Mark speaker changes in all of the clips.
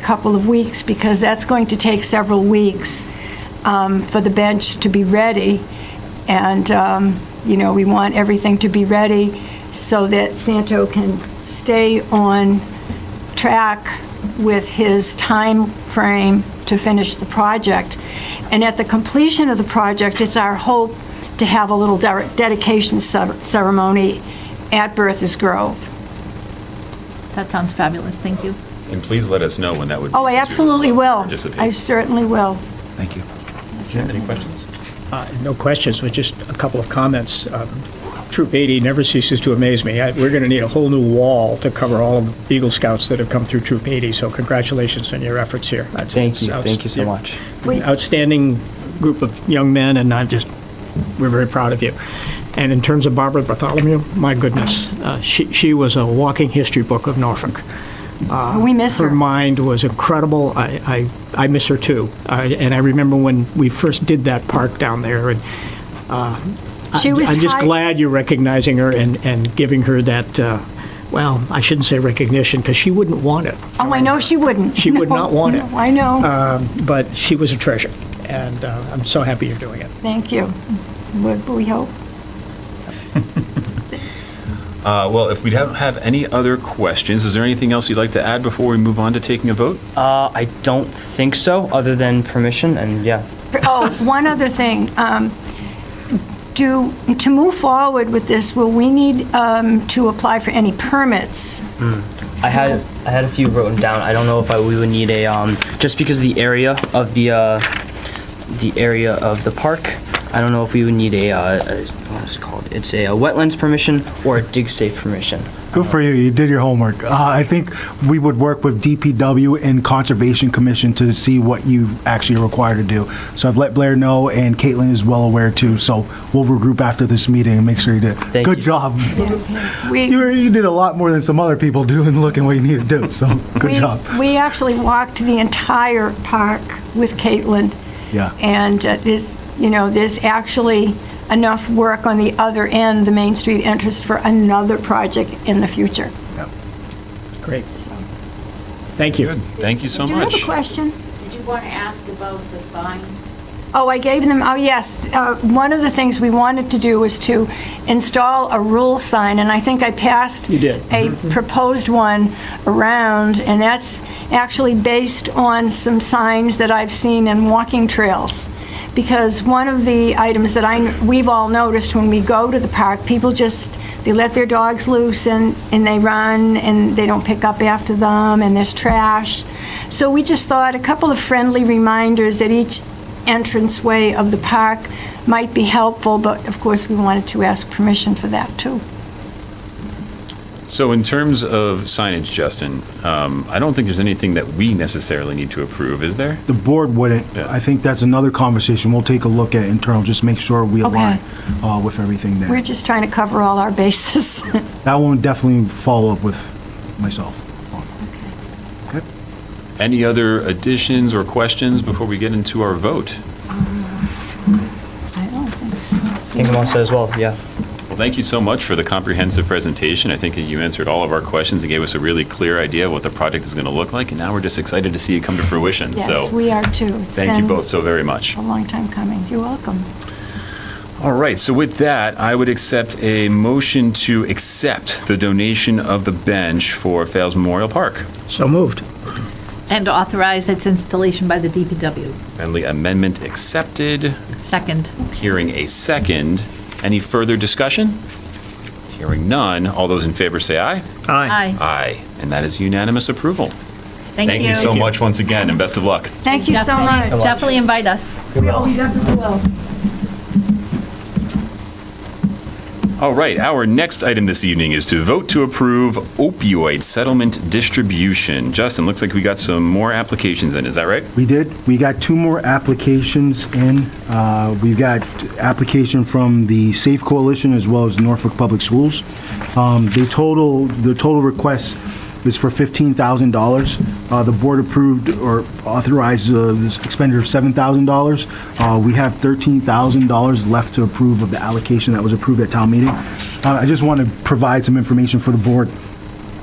Speaker 1: couple of weeks, because that's going to take several weeks um, for the bench to be ready. And, um, you know, we want everything to be ready so that Santo can stay on track with his time frame to finish the project. And at the completion of the project, it's our hope to have a little de- dedication cer- ceremony at Bertha's Grove.
Speaker 2: That sounds fabulous, thank you.
Speaker 3: And please let us know when that would be.
Speaker 1: Oh, I
Speaker 3: because we would
Speaker 1: absolutely
Speaker 3: love to
Speaker 1: will.
Speaker 3: participate.
Speaker 1: I certainly will.
Speaker 4: Thank you.
Speaker 3: Any questions?
Speaker 5: Uh, No questions, but just a couple of comments. Um, Troop 80 never ceases to amaze me. I- We're going to need a whole new wall to cover all of the Eagle Scouts that have come through Troop 80, so congratulations on your efforts here. That's-
Speaker 4: Thank you,
Speaker 5: it's
Speaker 4: thank you so
Speaker 5: outst-
Speaker 4: much.
Speaker 1: We-
Speaker 5: Outstanding group of young men, and I'm just, we're very proud of you. And in terms of Barbara Bartholomew, my goodness, uh, she she was a walking history book of Norfolk.
Speaker 1: We miss
Speaker 5: Her
Speaker 1: her.
Speaker 5: mind was incredible. I, I, I miss her too. I, and I remember when we first did that park down there, and
Speaker 1: She was
Speaker 5: I'm just
Speaker 1: tied-
Speaker 5: glad you're recognizing her and, and giving her that. Uh, well, I shouldn't say recognition because she wouldn't want it,
Speaker 1: Oh, I know she wouldn't.
Speaker 5: She would
Speaker 1: No,
Speaker 5: not want it. Uh,
Speaker 1: no, I know.
Speaker 5: Um, but she was a treasure, and uh, I'm so happy you're doing it.
Speaker 1: Thank you. Would We hope.
Speaker 3: Uh, Well, if we don't have any other questions, is there anything else you'd like to add before we move on to taking a vote?
Speaker 4: Uh, I don't think so, other than permission, and yeah.
Speaker 1: Oh, one other thing. Um, Do, to move forward with this, will we need um, to apply for any permits?
Speaker 4: I had I had a few written down. I don't know if I we would need a um just because of the area of the uh the area of the park. I don't know if we would need a, uh, a what is it called? It's a, uh wetlands permission or a dig safe permission.
Speaker 6: Good for you. You did your homework. Uh, I think we would work with DPW and Conservation Commission to see what you actually are required to do. So I've let Blair know, and Caitlin is well aware too. So we'll regroup after this meeting and make sure you did.
Speaker 4: Thank
Speaker 6: Good
Speaker 4: you.
Speaker 6: job.
Speaker 1: We-
Speaker 6: You, you did a lot more than some other people do in looking what you need to do. So good
Speaker 1: we-
Speaker 6: job.
Speaker 1: We actually walked the entire park with Caitlin.
Speaker 6: Yeah.
Speaker 1: And uh, there's, you know, there's actually enough work on the other end, the Main Street entrance, for another project in the future.
Speaker 5: Great. Thank you.
Speaker 3: Good. Thank you so
Speaker 1: Do you have
Speaker 3: much.
Speaker 1: a question?
Speaker 7: Did you want to ask about the sign?
Speaker 1: Oh, I gave them, oh, yes. uh, One of the things we wanted to do was to install a rule sign, and I think I passed.
Speaker 5: You did. Mm-hmm.
Speaker 1: A proposed one around, and that's actually based on some signs that I've seen in walking trails. Because one of the items that I, we've all noticed when we go to the park, people just, they let their dogs loose and, and they run, and they don't pick up after them, and there's trash. So we just thought a couple of friendly reminders at each entranceway of the park might be helpful, but of course, we wanted to ask permission for that, too.
Speaker 3: So in terms of signage, Justin, um, I don't think there's anything that we necessarily need to approve, is there?
Speaker 6: The board wouldn't.
Speaker 3: Yeah.
Speaker 6: I think that's another conversation. We'll take a look at internal. Just make sure we
Speaker 1: Okay.
Speaker 6: align uh, with everything there.
Speaker 1: We're just trying to cover all our bases.
Speaker 6: that one definitely follow up with myself. Okay.
Speaker 3: Any other additions or questions before we get into our vote?
Speaker 1: I oh, don't think so.
Speaker 4: I think I'm all set as well. Yeah.
Speaker 3: Well, thank you so much for the comprehensive presentation. I think that you answered all of our questions and gave us a really clear idea of what the project is going to look like, and now we're just excited to see it come to fruition.
Speaker 1: Yes,
Speaker 3: So
Speaker 1: we are, too. It's
Speaker 3: thank you
Speaker 1: been
Speaker 3: both so very much.
Speaker 1: A long time coming. You're welcome.
Speaker 3: All right, so with that, I would accept a motion to accept the donation of the bench for Fales Memorial Park.
Speaker 5: So moved.
Speaker 2: And authorize its installation by the DPW.
Speaker 3: Friendly amendment accepted.
Speaker 2: Second.
Speaker 3: Hearing a second. Any further discussion? Hearing none. All those in favor say aye.
Speaker 2: Aye.
Speaker 3: Aye. And that is unanimous approval.
Speaker 2: Thank you.
Speaker 3: Thank you so much once again, and best of luck.
Speaker 1: Thank you so much.
Speaker 2: Definitely- Definitely invite us.
Speaker 3: All right, our next item this evening is to vote to approve opioid settlement distribution. Justin, looks like we got some more applications in, is that right?
Speaker 6: We did. We got two more applications in. Uh, We've got application from the Safe Coalition as well as Norfolk Public Schools. Um, They total, the total request is for $15,000. Uh, The board approved or authorized uh, this expenditure of $7,000. Uh, We have $13,000 left to approve of the allocation that was approved at town meeting. Uh, I just want to provide some information for the board.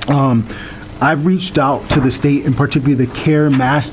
Speaker 6: Um, I've reached out to the state and particularly the CARE Mass